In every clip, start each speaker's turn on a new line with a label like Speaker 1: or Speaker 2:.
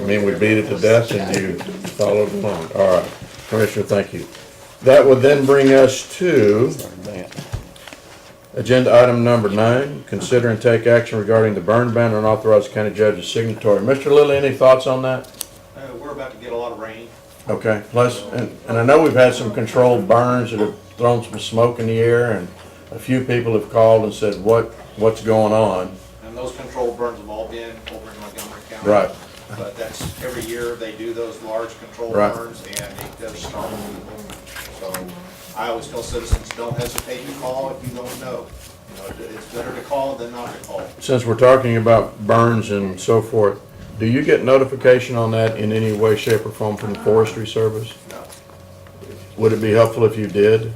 Speaker 1: mean, we beat it to death and you followed along. All right, Commissioner, thank you. That would then bring us to agenda item number nine, consider and take action regarding the burn ban and authorize the county judge as signatory. Mr. Lilly, any thoughts on that?
Speaker 2: Uh, we're about to get a lot of rain.
Speaker 1: Okay, plus, and, and I know we've had some controlled burns that have thrown some smoke in the air and a few people have called and said, what, what's going on?
Speaker 2: And those controlled burns have all been over in Montgomery County.
Speaker 1: Right.
Speaker 2: But that's, every year they do those large controlled
Speaker 1: Right.
Speaker 2: burns and it does startle people. So I always tell citizens, don't hesitate to call if you don't know. You know, it- it's better to call than not to call.
Speaker 1: Since we're talking about burns and so forth, do you get notification on that in any way, shape, or form from the Forestry Service?
Speaker 2: No.
Speaker 1: Would it be helpful if you did?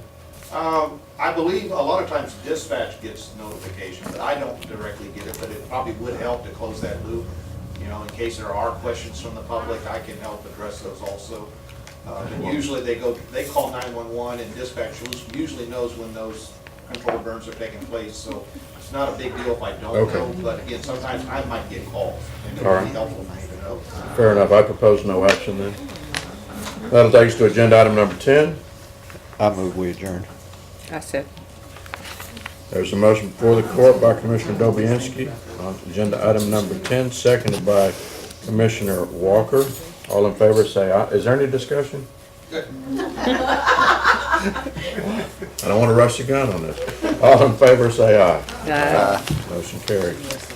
Speaker 2: Um, I believe a lot of times dispatch gets notification, but I don't directly get it, but it probably would help to close that loop. You know, in case there are questions from the public, I can help address those also. Uh, and usually they go, they call nine-one-one and dispatch us- usually knows when those controlled burns are taking place, so it's not a big deal if I don't
Speaker 1: Okay.
Speaker 2: know, but again, sometimes I might get calls, and it
Speaker 1: All
Speaker 2: would
Speaker 1: right.
Speaker 2: be helpful for me to know.
Speaker 1: Fair enough, I propose no action then. That'll take us to agenda item number ten.
Speaker 3: I move we adjourn.
Speaker 4: I said.
Speaker 1: There's a motion before the court by Commissioner Dobianski on agenda item number ten, seconded by Commissioner Walker. All in favor, say aye. Is there any discussion? I don't want to rush the gun on this. All in favor, say aye.
Speaker 4: Uh,
Speaker 1: Motion carries.